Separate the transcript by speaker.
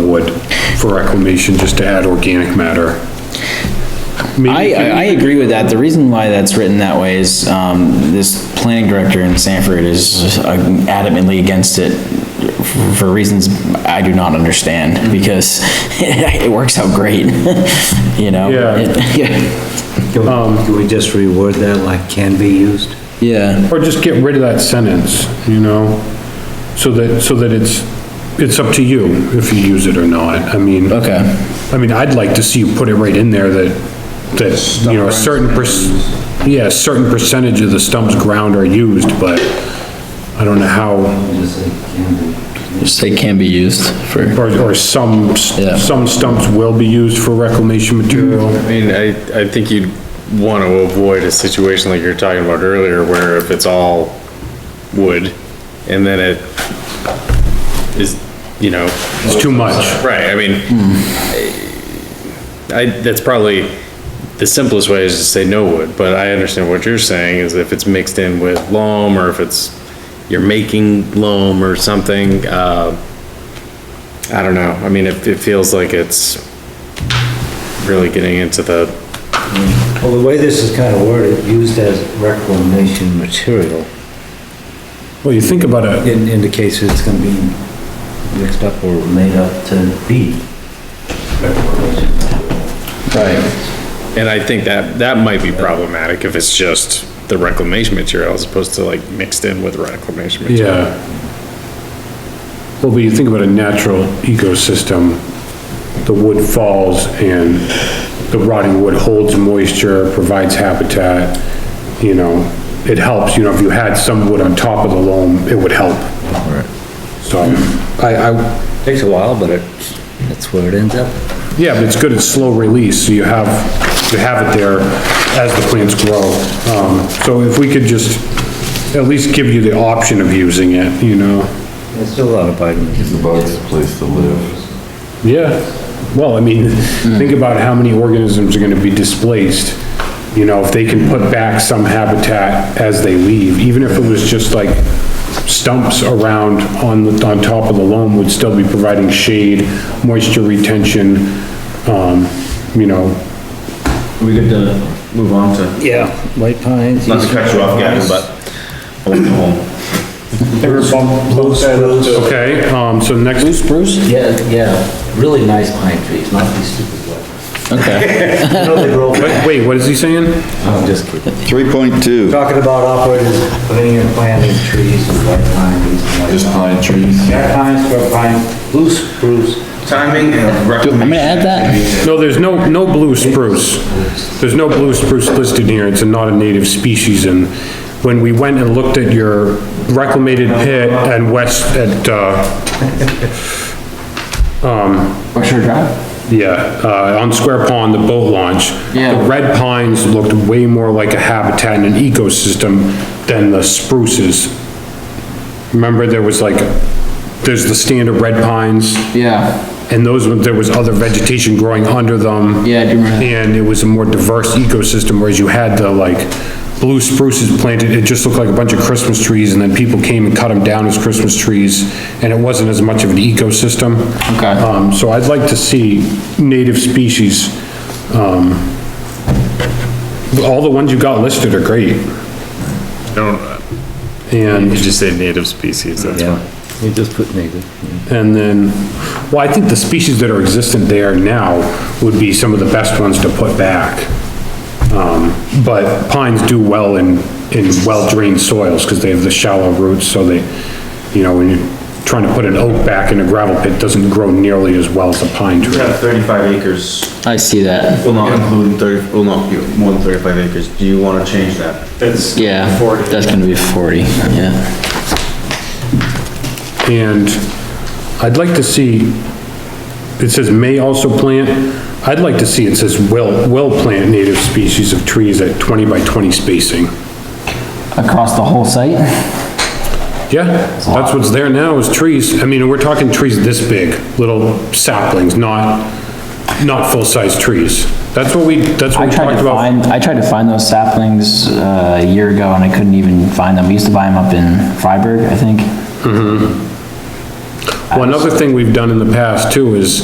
Speaker 1: board for reclamation, just to add organic matter.
Speaker 2: I, I I agree with that. The reason why that's written that way is, um, this planning director in Sanford is uh, adamantly against it for reasons I do not
Speaker 1: Mm-hmm.
Speaker 2: understand, because it works out great, you know? Yeah.
Speaker 3: Can we just reword that like can be used?
Speaker 2: Yeah,
Speaker 1: Or just get rid of that sentence, you know? So that, so that it's, it's up to you if you use it or not. I mean,
Speaker 2: okay.
Speaker 1: I mean, I'd like to see you put it right in there that, that, you know, a certain per, yeah, a certain percentage of the stump's ground are used, but I don't know how,
Speaker 3: Just say can be.
Speaker 2: Just say can be used for.
Speaker 1: or, or some,
Speaker 2: Yeah.
Speaker 1: s- some stumps will be used for reclamation material.
Speaker 4: I mean, I, I think you'd want to avoid a situation like you were talking about earlier, where if it's all wood, and then it is, you know,
Speaker 1: It's too much.
Speaker 4: right, I mean, I, that's probably the simplest way is to say no wood, but I understand what you're saying, is if it's mixed in with loam, or if it's, you're making loam or something, uh, I don't know, I mean, it, it feels like it's really getting into the
Speaker 3: Well, the way this is kind of worded, used as reclamation material,
Speaker 1: Well, you think about it,
Speaker 3: it indicates it's gonna be mixed up or made up to be reclamation.
Speaker 4: And I think that, that might be problematic if it's just the reclamation material as opposed to like mixed in with reclamation material.
Speaker 1: Yeah. Well, but you think about a natural ecosystem, the wood falls and the rotting wood holds moisture, provides habitat, you know, it helps, you know, if you had some wood on top of the loam, it would help. So, I, I,
Speaker 3: Takes a while, but it's, that's where it ends up.
Speaker 1: yeah, but it's good, it's slow release, so you have, you have it there as the plants grow. Um, so if we could just at least give you the option of using it, you know?
Speaker 3: There's still a lot of vitamins.
Speaker 5: About this place to live.
Speaker 1: Yeah, well, I mean, think about how many organisms are gonna be displaced. You know, if they can put back some habitat as they leave, even if it was just like stumps around on, the- on top of the loam would still be providing shade, moisture retention, um, you know,
Speaker 6: We could uh, move on to,
Speaker 3: Yeah, white pines.
Speaker 6: not to cut you off, Gavin, but I want to go home.
Speaker 1: okay, um, so next.
Speaker 3: Yeah, yeah, really nice pine trees, not these stupid ones. Okay. No, they grow.
Speaker 1: Oh, Wait, Wait, what is he saying?
Speaker 3: I'm just kidding.
Speaker 5: Three point two,
Speaker 3: Talking about operators putting in planting trees and white pines and white.
Speaker 5: just pine trees.
Speaker 3: Jack pine, square pine, blue spruce.
Speaker 6: Timing and recommendation. I'm gonna add that.
Speaker 1: No, there's no, no blue spruce. There's no blue spruce listed here, it's not a native species, and when we went and looked at your reclamated pit and west at, uh,
Speaker 7: Berkshire Drive?
Speaker 1: yeah, uh, on Square Pond, the boat launch, the
Speaker 7: Yeah.
Speaker 1: red pines looked way more like a habitat and an ecosystem than the spruces. Remember, there was like, there's the standard red pines,
Speaker 7: Yeah,
Speaker 1: and those, there was other vegetation growing under them.
Speaker 7: yeah, I do remember. that.
Speaker 1: and it was a more diverse ecosystem, whereas you had the like blue spruces planted, it just looked like a bunch of Christmas trees, and then people came and cut them down as Christmas trees, and it wasn't as much of an ecosystem.
Speaker 7: Okay.
Speaker 1: Um, so I'd like to see native species, um, all the ones you got listed are great,
Speaker 4: Don't, you
Speaker 1: and,
Speaker 4: just say native species, that's fine.
Speaker 3: You just put native.
Speaker 1: and then, well, I think the species that are existent there now would be some of the best ones to put back. Um, But pines do well in, in well-drained soils, because they have the shallow roots, so they, you know, when you're trying to put an oak back in a gravel pit, it doesn't grow nearly as well as a pine
Speaker 6: We
Speaker 1: tree.
Speaker 6: have thirty-five acres,
Speaker 7: I see that,
Speaker 6: will not include thirty, will not be more than thirty-five acres. Do you wanna change that?
Speaker 7: yeah, that's gonna be forty, yeah.
Speaker 1: And I'd like to see, it says may also plant, I'd like to see it says will, will plant native species of trees at 20 by 20 spacing.
Speaker 7: Across the whole site?
Speaker 1: Yeah, that's what's there now is trees, I mean, we're talking trees this big, little saplings, not, not full-size trees. That's what we, that's what
Speaker 7: I
Speaker 1: we
Speaker 7: tried
Speaker 1: talked
Speaker 7: to
Speaker 1: about.
Speaker 7: find, I tried to find those saplings, uh, a year ago and I couldn't even find them. We used to buy them up in Freiburg, I think.
Speaker 1: Well, another thing we've done in the past too is